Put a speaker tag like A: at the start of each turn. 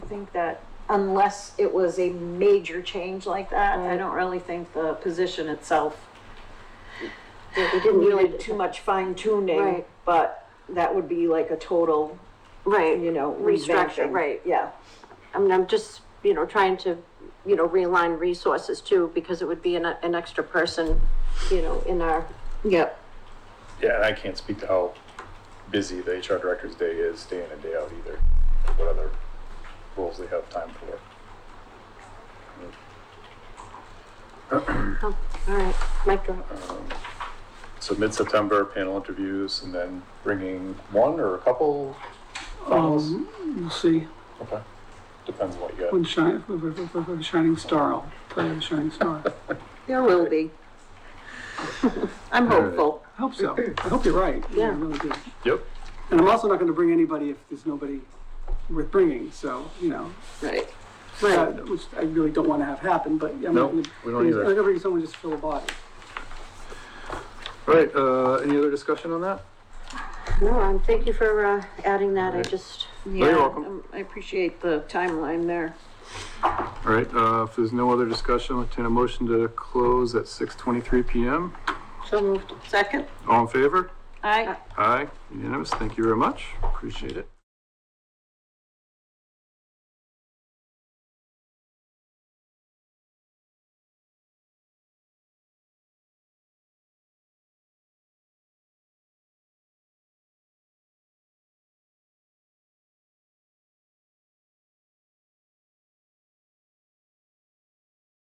A: think that unless it was a major change like that, I don't really think the position itself. It didn't really too much fine tuning,
B: Right.
A: but that would be like a total,
B: Right.
A: you know,
B: Restructure,
A: revamping.
B: right.
A: Yeah,
B: I mean, I'm just, you know, trying to, you know, realign resources too, because it would be an, an extra person, you know, in our,
A: yep.
C: Yeah, and I can't speak to how busy the HR director's day is, day in and day out either, what other roles they have time for.
B: oh, all right, mic drop.
C: So mid-September panel interviews and then bringing one or a couple finals?
D: Mm, We'll see.
C: Okay, depends on what you
D: One
C: got.
D: shi- if we have a shining star, I'll tell you the shining star.
A: There will be. I'm hopeful.
D: I hope so. I hope you're right. I
B: Yeah.
D: really do.
C: Yep,
D: And I'm also not going to bring anybody if there's nobody worth bringing, so, you know,
A: Right.
D: uh, which I really don't want to have happen, but I'm
E: No,
D: not going to.
E: we don't
D: I'm
E: either.
D: going to bring someone just to fill a body.
E: All right, uh, any other discussion on that?
B: No, um, thank you for, uh, adding that, I just,
A: Yeah,
E: welcome.
A: um, I appreciate the timeline there.
E: All right, uh, if there's no other discussion, I'll entertain a motion to close at six twenty-three PM.
B: so moved.
A: Second? Uh,
E: All in favor?
A: Aye.
E: Aye, unanimous. Thank you very much. Appreciate it.